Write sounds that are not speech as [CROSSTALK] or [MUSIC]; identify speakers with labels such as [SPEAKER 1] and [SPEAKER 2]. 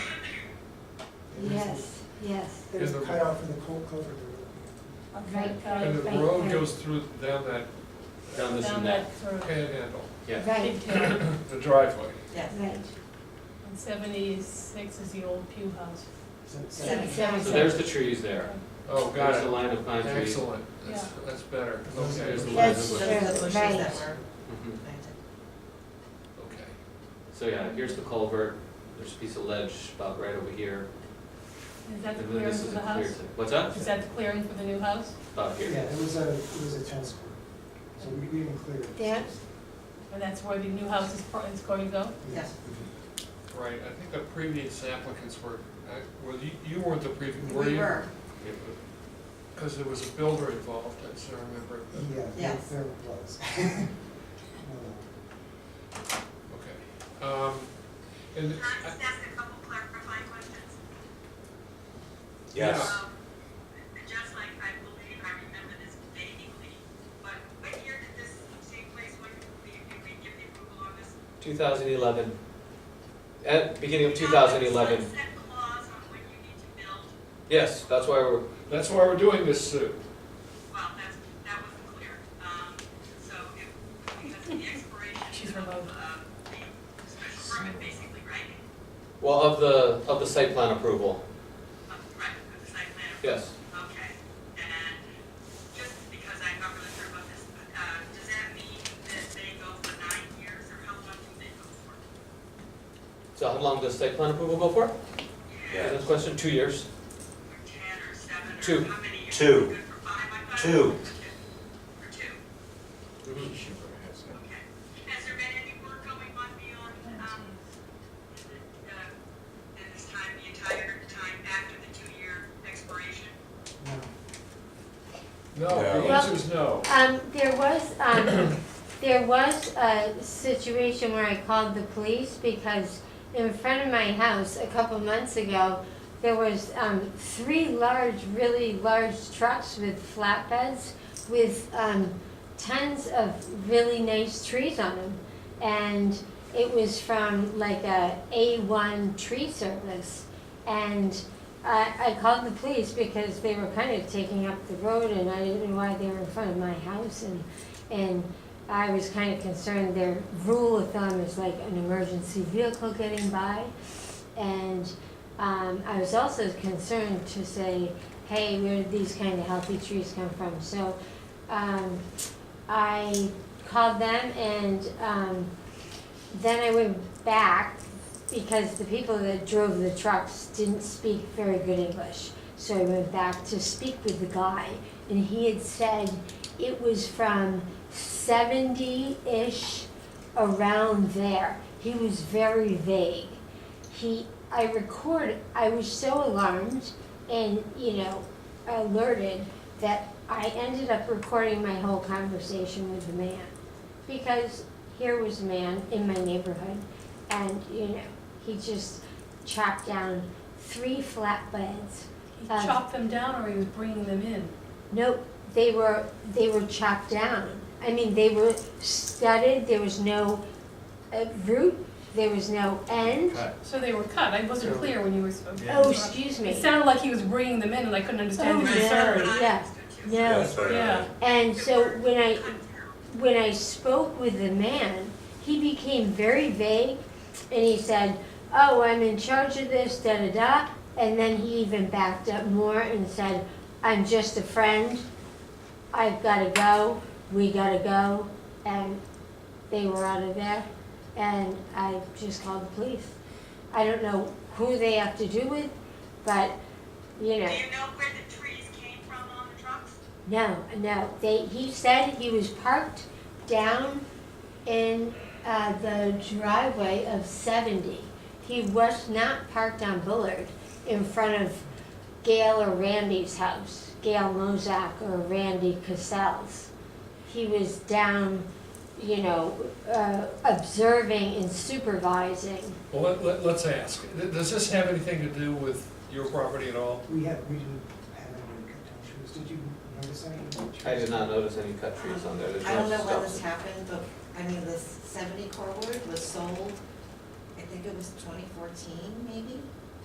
[SPEAKER 1] Yes, yes,
[SPEAKER 2] There's
[SPEAKER 3] And
[SPEAKER 2] a
[SPEAKER 3] the-
[SPEAKER 2] cutoff for the cold culvert.
[SPEAKER 1] Right,
[SPEAKER 3] And the
[SPEAKER 1] Right,
[SPEAKER 3] road
[SPEAKER 1] right.
[SPEAKER 3] goes through, down that
[SPEAKER 4] Down this
[SPEAKER 5] Down
[SPEAKER 4] and that,
[SPEAKER 5] that through,
[SPEAKER 3] panhandle,
[SPEAKER 4] yeah.
[SPEAKER 1] right,
[SPEAKER 5] big hill,
[SPEAKER 3] the driveway.
[SPEAKER 6] Yes.
[SPEAKER 1] right.
[SPEAKER 5] and seventy-six is the old Pew House.
[SPEAKER 6] Seven.
[SPEAKER 4] So there's the trees there.
[SPEAKER 3] Oh,
[SPEAKER 4] There's the
[SPEAKER 3] got it.
[SPEAKER 4] line of pine trees.
[SPEAKER 3] Excellent, that's, that's better,
[SPEAKER 2] Those
[SPEAKER 3] okay,
[SPEAKER 2] are-
[SPEAKER 4] There's the line
[SPEAKER 1] That's
[SPEAKER 4] of
[SPEAKER 6] Those
[SPEAKER 4] bushes.
[SPEAKER 6] are the bushes that
[SPEAKER 1] Right.
[SPEAKER 6] were
[SPEAKER 4] Mhm.
[SPEAKER 6] planted.
[SPEAKER 3] okay.
[SPEAKER 4] So yeah, here's the culvert, there's a piece of ledge about right over here.
[SPEAKER 5] Is that the
[SPEAKER 4] And then
[SPEAKER 5] clearing
[SPEAKER 4] this
[SPEAKER 5] for
[SPEAKER 4] is
[SPEAKER 5] the
[SPEAKER 4] a clear,
[SPEAKER 5] house?
[SPEAKER 4] what's up?
[SPEAKER 5] Is that the clearing for the new house?
[SPEAKER 4] About
[SPEAKER 2] Yeah,
[SPEAKER 4] here.
[SPEAKER 2] there was a, it was a tennis court, so we we didn't clear it.
[SPEAKER 1] There,
[SPEAKER 5] And that's where the new house is, pro- is going to go?
[SPEAKER 6] Yes.
[SPEAKER 3] Right, I think the previous applicants were, I- well, you, you weren't the previous, were you?
[SPEAKER 6] We were,
[SPEAKER 4] Yeah,
[SPEAKER 3] Because there was a builder involved, I still remember, but-
[SPEAKER 6] Mm-hmm.
[SPEAKER 2] Yeah, there,
[SPEAKER 6] Yes.
[SPEAKER 2] there it was. [LAUGHS] Uh,
[SPEAKER 3] okay. Um, And,
[SPEAKER 7] Can I
[SPEAKER 3] I-
[SPEAKER 7] just ask a couple clarifying questions?
[SPEAKER 3] Yes.
[SPEAKER 7] Um, Just like, I believe, I remember this vaguely, but what year did this take place? When did we, did we give the approval on this?
[SPEAKER 4] 2011, at beginning of 2011.
[SPEAKER 7] Sunset clause on when you need to build,
[SPEAKER 4] Yes, that's why we're,
[SPEAKER 3] that's why we're doing this, Sue.
[SPEAKER 7] well, that's, that wasn't clear. Um, So if, because of the
[SPEAKER 5] She's
[SPEAKER 7] expiration of,
[SPEAKER 5] remote.
[SPEAKER 7] um, the special permit, basically, right?
[SPEAKER 4] well, of the, of the site plan approval,
[SPEAKER 7] Um, Right, of the site plan approval.
[SPEAKER 4] yes.
[SPEAKER 7] Okay, and just because I'm not really sure about this, uh, does that mean that they go for nine years, or how long do they go for?
[SPEAKER 4] So how long does site plan approval go for?
[SPEAKER 7] Yeah.
[SPEAKER 4] Is that the question? Two years?
[SPEAKER 7] Or ten, or seven,
[SPEAKER 4] Two.
[SPEAKER 7] or how many years?
[SPEAKER 8] Two.
[SPEAKER 7] Good for five, I thought?
[SPEAKER 8] Two.
[SPEAKER 7] For two,
[SPEAKER 4] Mm-hmm.
[SPEAKER 7] okay. Has there been any work going on beyond, um, the, uh, in this time, the entire time after the two-year expiration?
[SPEAKER 2] no.
[SPEAKER 3] No,
[SPEAKER 8] No.
[SPEAKER 3] the answer is no.
[SPEAKER 1] um, there was, um, there was a situation where I called the police because in front of my house a couple months ago, there was, um, three large, really large trucks with flatbeds with, um, tons of really nice trees on them. And it was from like a A1 tree service. And I, I called the police because they were kind of taking up the road and I didn't know why they were in front of my house and, and I was kind of concerned their rule of thumb is like an emergency vehicle getting by. And um, I was also concerned to say, hey, where did these kind of healthy trees come from? So um, I called them and um, then I went back because the people that drove the trucks didn't speak very good English. So I went back to speak with the guy, and he had said it was from 70 ish around there. He was very vague. He, I record, I was so alarmed and, you know, alerted that I ended up recording my whole conversation with the man. Because here was a man in my neighborhood and, you know, he just chopped down three flatbeds.
[SPEAKER 5] He
[SPEAKER 1] Um,
[SPEAKER 5] chopped them down or he was bringing them in?
[SPEAKER 1] Nope, they were, they were chopped down. I mean, they were studded, there was no uh, root, there was no end.
[SPEAKER 4] Cut.
[SPEAKER 5] So they were cut, I wasn't
[SPEAKER 3] Yeah.
[SPEAKER 5] clear when you were spoken.
[SPEAKER 1] Oh, excuse me.
[SPEAKER 5] It sounded like he was bringing them in and I couldn't understand the
[SPEAKER 1] Oh, yeah.
[SPEAKER 5] concern.
[SPEAKER 7] I
[SPEAKER 1] Yeah.
[SPEAKER 7] understood too.
[SPEAKER 1] No.
[SPEAKER 5] Yeah,
[SPEAKER 1] And so when I,
[SPEAKER 7] Couldn't tell.
[SPEAKER 1] when I spoke with the man, he became very vague and he said, Oh, I'm in charge of this, da da da. And then he even backed up more and said, I'm just a friend. I've got to go. We got to go. And they were out of there. And I just called the police. I don't know who they have to do with, but you know.
[SPEAKER 7] Do you know where the trees came from on the trucks?
[SPEAKER 1] No, no, they, he said he was parked down in, uh, the driveway of seventy. He was not parked on Bullard in front of Gail or Randy's house, Gail Mozak or Randy Cassell's. He was down, you know, uh, observing and supervising.
[SPEAKER 3] Well, let- let, let's ask, Th- does this have anything to do with your property at all?
[SPEAKER 2] We had, we didn't have any cut down trees, did you notice any? trees?
[SPEAKER 4] I did not notice any cut trees on there. There's
[SPEAKER 6] I don't
[SPEAKER 4] no
[SPEAKER 6] know when
[SPEAKER 4] stuff.
[SPEAKER 6] this happened, but, I mean, this seventy cordwood was sold, I think it was twenty fourteen, maybe?